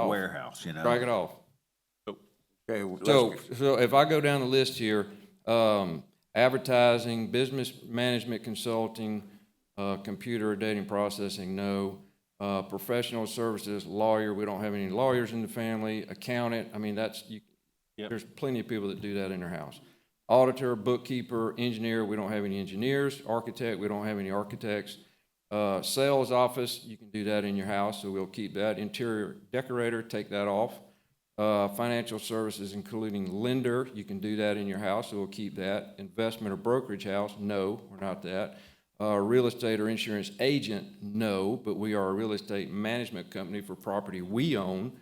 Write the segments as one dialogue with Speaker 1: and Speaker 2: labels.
Speaker 1: Oh.
Speaker 2: warehouse, you know?
Speaker 3: Strike it off.
Speaker 4: Okay, let's-
Speaker 3: So, so if I go down the list here, um, advertising, business management consulting, uh, computer dating processing, no. Uh, professional services, lawyer, we don't have any lawyers in the family, accountant, I mean, that's, you, there's plenty of people that do that in their house. Auditor, bookkeeper, engineer, we don't have any engineers, architect, we don't have any architects. Uh, sales office, you can do that in your house, so we'll keep that. Interior decorator, take that off. Uh, Financial services, including lender, you can do that in your house, so we'll keep that. Investment or brokerage house, no, we're not that. Uh, Real estate or insurance agent, no, but we are a real estate management company for property we own.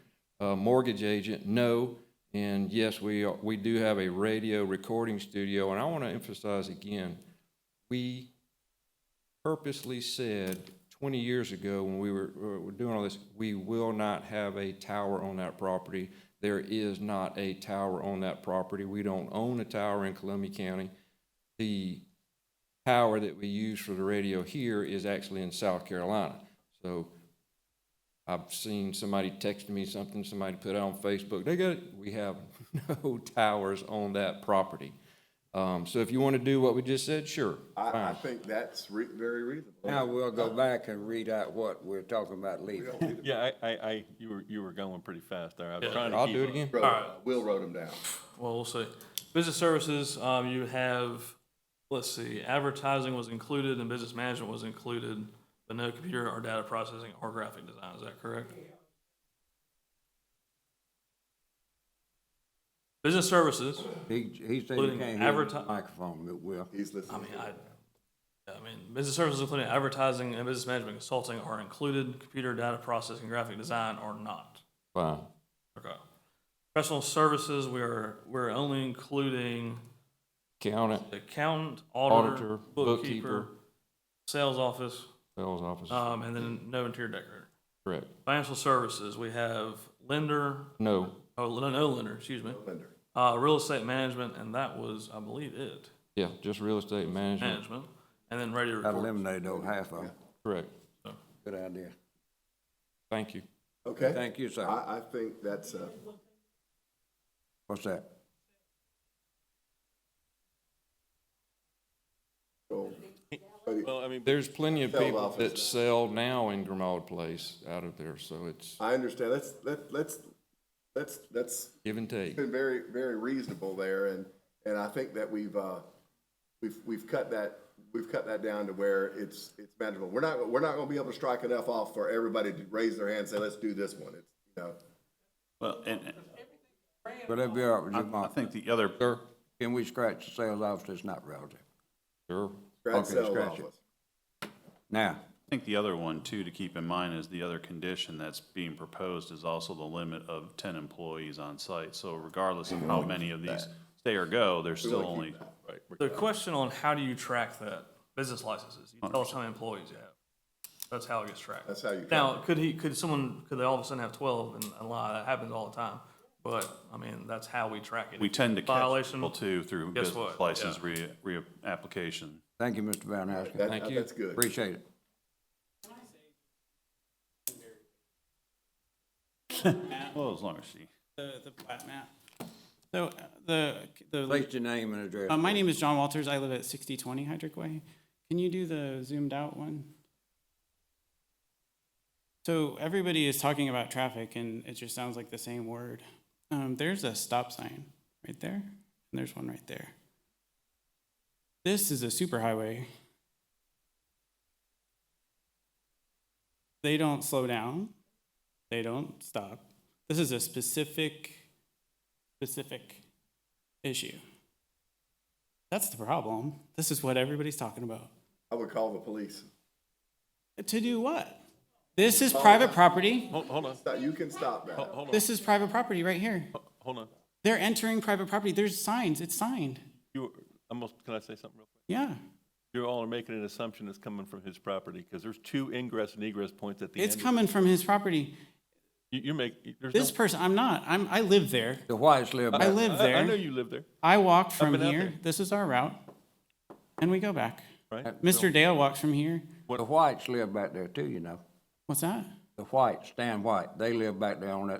Speaker 3: Uh, Mortgage agent, no. And yes, we, are- we do have a radio recording studio, and I want to emphasize again, we purposely said 20 years ago when we were, were doing all this, we will not have a tower on that property. There is not a tower on that property. We don't own a tower in Columbia County. The tower that we use for the radio here is actually in South Carolina. So I've seen somebody text me something, somebody put it on Facebook, they got, it. we have no towers on that property. Um, so if you want to do what we just said, sure.
Speaker 5: I, I
Speaker 3: fine.
Speaker 5: think that's re- very reasonable.
Speaker 4: now we'll go back and read out what we're talking about leaving.
Speaker 1: Yeah, I, I, I, you were, you were going pretty fast there. I was
Speaker 6: Yeah.
Speaker 1: trying to keep
Speaker 3: I'll do it
Speaker 1: up.
Speaker 3: again.
Speaker 5: Wrote-
Speaker 6: Alright.
Speaker 5: Will wrote them down.
Speaker 6: Well, we'll see. Business services, um, you have, let's see, advertising was included and business management was included, but no computer or data processing or graphic design, is that correct? Business services,
Speaker 4: He, he said he
Speaker 6: Including
Speaker 4: can't hear the
Speaker 6: adverti-
Speaker 4: microphone, but will.
Speaker 5: He's
Speaker 6: I
Speaker 5: listening.
Speaker 6: mean, I, yeah, I mean, business services including advertising and business management consulting are included, computer data processing, graphic design are not.
Speaker 3: Fine.
Speaker 6: Okay. Professional services, we are, we're only including
Speaker 3: Count it,
Speaker 6: accountant, auditor,
Speaker 3: Auditor,
Speaker 6: bookkeeper,
Speaker 3: bookkeeper.
Speaker 6: sales office,
Speaker 3: sales office,
Speaker 6: um, and then no interior decorator.
Speaker 3: correct.
Speaker 6: Financial services, we have lender,
Speaker 3: No,
Speaker 6: oh, no, no lender, excuse me.
Speaker 5: Lender.
Speaker 6: Uh, real estate management, and that was, I believe, it,
Speaker 3: yeah, just real estate management,
Speaker 6: management, and then radio
Speaker 4: That
Speaker 6: recorder.
Speaker 4: eliminated those half of them.
Speaker 3: correct.
Speaker 4: Good idea.
Speaker 3: Thank you.
Speaker 5: Okay,
Speaker 4: Thank you, sir.
Speaker 5: I, I think that's, uh,
Speaker 4: What's that?
Speaker 5: so,
Speaker 1: Well, I mean,
Speaker 3: There's plenty of
Speaker 5: Sales
Speaker 3: people
Speaker 5: office.
Speaker 3: that sell now in Grimaud Place out of there, so it's
Speaker 1: Uh,
Speaker 5: I understand. Let's, let, let's, let's, that's
Speaker 3: give and take.
Speaker 5: been very, very reasonable there and, and I think that we've, uh, we've, we've cut that, we've cut that down to where it's, it's manageable. We're not, we're not gonna be able to strike enough off for everybody to raise their hand and say, let's do this one. It's, you know,
Speaker 7: Well, and
Speaker 4: Will that be all right with you,
Speaker 7: and I I
Speaker 4: Mark?
Speaker 7: think the other,
Speaker 3: Sure,
Speaker 4: Can we scratch the sales office that's not relative?
Speaker 3: sure.
Speaker 5: grand
Speaker 4: Okay,
Speaker 5: sales
Speaker 4: scratch it.
Speaker 5: office.
Speaker 4: Now,
Speaker 7: I think the other one too to keep in mind is the other condition that's being proposed is also the limit of ten employees on site. So regardless of how many of these stay or go, there's still only,
Speaker 6: The question on how do you track that, business licenses, you tell us how many employees you have. That's how it gets tracked.
Speaker 5: That's how you track
Speaker 6: Now, could he, could someone, could they all of a sudden have twelve and and lie, that happens all the time, but, I mean, that's how we track it.
Speaker 7: we tend to catch
Speaker 6: Violation.
Speaker 7: people too through
Speaker 6: Guess
Speaker 7: business
Speaker 6: what?
Speaker 7: license
Speaker 6: Yeah.
Speaker 7: re, reapplication.
Speaker 4: thank you, Mr. Van Asken.
Speaker 5: That, that's good.
Speaker 4: Appreciate it.
Speaker 7: Well, as long as she.
Speaker 8: the, the plat map. So uh, the, the,
Speaker 4: Place your name and address.
Speaker 8: uh, my name is John Walters. I live at sixty twenty Hydrick Way. Can you do the zoomed out one? So everybody is talking about traffic and it just sounds like the same word. Um, there's a stop sign right there and there's one right there. This is a superhighway. They don't slow down. They don't stop. This is a specific, specific issue. That's the problem. This is what everybody's talking about.
Speaker 5: I would call the police.
Speaker 8: To do what? This is private property.
Speaker 1: hold, hold on,
Speaker 5: Stop- You can stop that.
Speaker 1: hold on,
Speaker 8: This is private property right here.
Speaker 1: hold on.
Speaker 8: They're entering private property. There's signs. It's signed.
Speaker 1: You, were- I'm, gonna- can I say something real quick?
Speaker 8: Yeah.
Speaker 1: You all are making an assumption that's coming from his property, because there's two ingress and egress points at the end.
Speaker 8: It's coming from his property.
Speaker 1: You, you make, there's no.
Speaker 8: This person, I'm not. I'm, I live there.
Speaker 4: The whites live
Speaker 8: I
Speaker 4: back.
Speaker 8: live
Speaker 1: I- I know
Speaker 8: there.
Speaker 1: you live there,
Speaker 8: I walk from
Speaker 1: and out
Speaker 8: here.
Speaker 1: there.
Speaker 8: This is our route. And we go back.
Speaker 1: right?
Speaker 8: Mr. Dale walks from here.
Speaker 4: The whites live back there too, you know.
Speaker 8: What's that?
Speaker 4: The whites, Stan White, they live back there on that